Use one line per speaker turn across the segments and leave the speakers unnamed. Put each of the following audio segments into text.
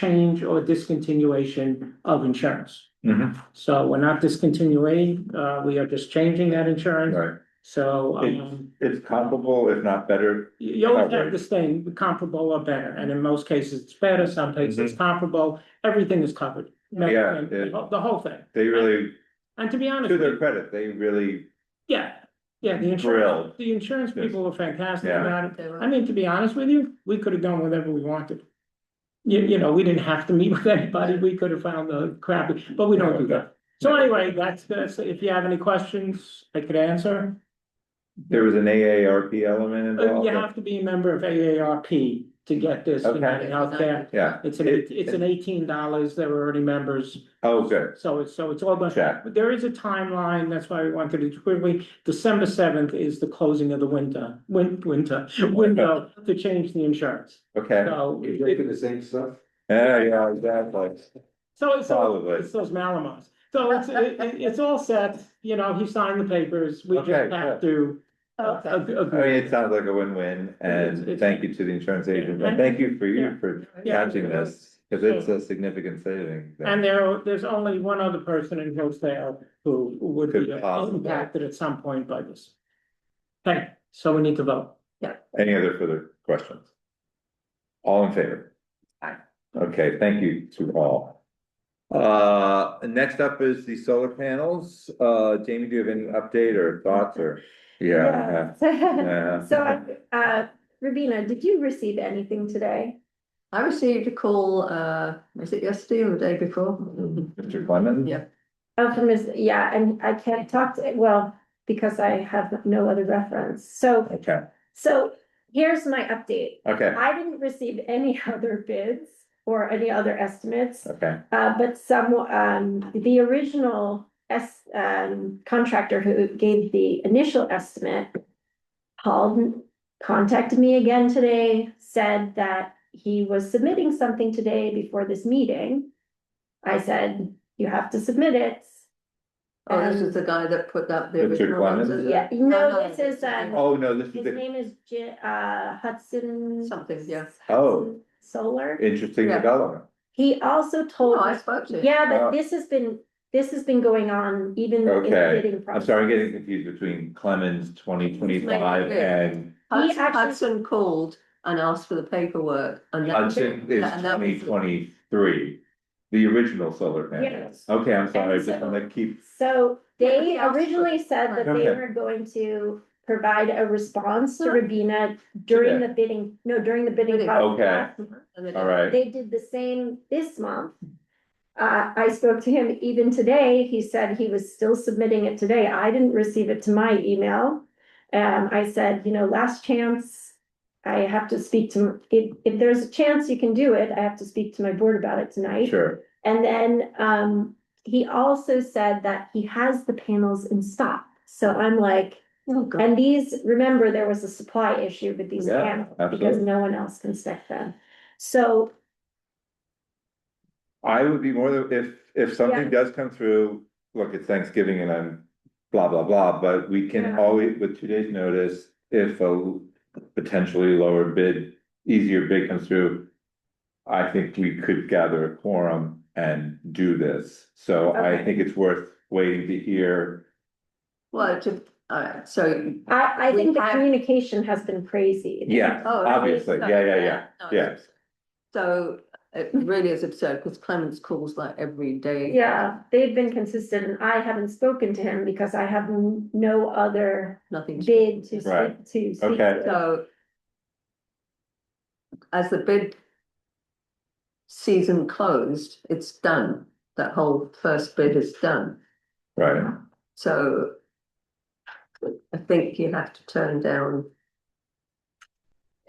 change or discontinuation of insurance.
Mhm.
So we're not discontinuing, uh, we are just changing that insurance,
Right,
so, um,
it's comparable, if not better,
you you always have this thing, comparable or better, and in most cases it's better, some cases it's comparable, everything is covered.
Mm-hmm. Yeah,
The whole- the whole thing,
they really,
and to be honest,
to their
with you,
credit, they really,
yeah, yeah, the insurance,
Thrilled.
the insurance people were fantastic
Yeah.
about it. I mean, to be honest with you, we could have done whatever we wanted. You, you know, we didn't have to meet with anybody, we could have found the crappy, but we don't do that. So anyway, that's, that's, if you have any questions, I could answer.
there was an AARP element
Uh,
involved.
You have to be a member of AARP to get this,
Okay.
United Healthcare.
Yeah,
It's an,
It-
it's an eighteen dollars, there were already members.
oh, good,
So it's, so it's all done.
Check.
But there is a timeline, that's why we wanted it quickly. December seventh is the closing of the winter, win, winter, window to change the insurance.
okay,
So,
You're
it-
taking the same stuff?
yeah, yeah, exactly,
so it's, all-
probably,
it's those Malamos. So it's, it, it- it's all set, you know, he signed the papers, we
Okay,
just have to. uh,
Okay.
ag-
I mean,
agree.
it sounds like a win-win, and thank you to the insurance agent, and thank you for you for
Yeah.
catching this, cause it's a significant saving.
And there, there's only one other person in Hillsdale who would be
Could possibly.
impacted at some point by this. Okay, so we need to vote.
Any other further questions? All in favor?
Aye.
Okay, thank you to all. Uh, next up is the solar panels. Uh, Jamie, do you have any update or thoughts or? Yeah. yeah.
So, uh, Rubina, did you receive anything today?
I received a call, uh, was it yesterday or the day before?
Mm-hmm.
Mr. Clemens?
Yeah.
Oh, from his, yeah, and I can't talk to, well, because I have no other reference. So,
Okay,
so here's my update.
okay,
I didn't receive any other bids or any other estimates,
okay,
uh, but some, um, the original S, um, contractor who gave the initial estimate called, and contacted me again today, said that he was submitting something today before this meeting. I said, you have to submit it.
Oh, this is uh, the guy that put that. the
Richard
original ones,
Clemens?
is it?
Um, Yeah, no, this is, um,
oh, no, this is
His
the
name is Ji- uh, Hudson.
Something, yeah.
Oh.
Solar.
interesting
Yeah.
development.
He also
Oh,
told
I
me
spoke to him.
Yeah,
Uh,
but this has been, this has been going on even in
Okay.
the bidding
I'm
process.
sorry, I'm getting confused between Clemens twenty twenty-five and
Hudson,
actually-
Hudson called and asked for the paperwork and then.
Hudson is
and that
twenty
was-
twenty-three. The original solar panels.
Yes.
Okay, I'm sorry, I
And
just
so-
wanna keep
So
Yeah,
they
he also-
originally said that they
Okay.
were going to provide a response to Rabina during the bidding, no, during the bidding
Bidding.
process.
and they-
All right,
They did the same this month. Uh, I spoke to him even today. He said he was still submitting it today. I didn't receive it to my email. Um, I said, you know, last chance. I have to speak to, if, if there's a chance you can do it, I have to speak to my board about it tonight.
sure,
And then um he also said that he has the panels in stock. So I'm like,
Oh, God.
and these, remember, there was a supply issue with these
Yeah,
panels because
absolutely.
no one else can stick them. So
I would be more than, if, if something does come through, look, it's Thanksgiving and I'm blah, blah, blah, but we can
Yeah.
always, with two days' notice, if a potentially lower bid, easier bid comes through, I think we could gather a quorum and do this, so I
Okay.
think it's worth waiting to hear.
Well, to, all right, so. oh,
I I think
We
the
have-
communication has been crazy.
Yeah,
oh,
obviously,
so-
yeah, yeah, yeah,
no,
yeah.
So it really is absurd because Clemens calls like every day.
Yeah, they've been consistent and I haven't spoken to him because I have n- no other
Nothing. to-
bid to
Right.
speak to. speak
Okay.
to.
So. As the bid. Season closed, it's done, that whole first bid is done,
right,
so. I think you have to turn down.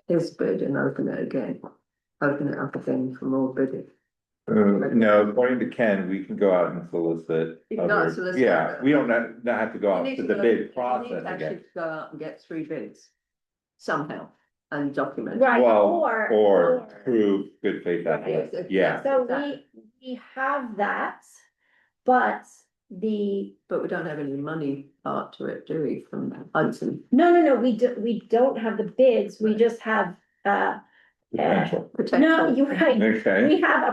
His bid and open it again, open it up again for more bidding.
Uh, no, according to Ken, we can go out and solicit.
You can go out
other-
and solicit,
Yeah,
but-
we don't not, not have to go
You
out
need
to
to
the
go- you
bid
need
process
to
again.
actually Go out and get three bids somehow and document.
Right,
Well,
or.
or prove good faith
Right.
effort, yeah,
So we,
Exactly.
we have that, but the,
But we don't have any money part to it, do we, from Hudson
no, no, no, we do, we don't have the bids, we just have, uh,
potential,
potential?
no, you're right.
okay.
We have a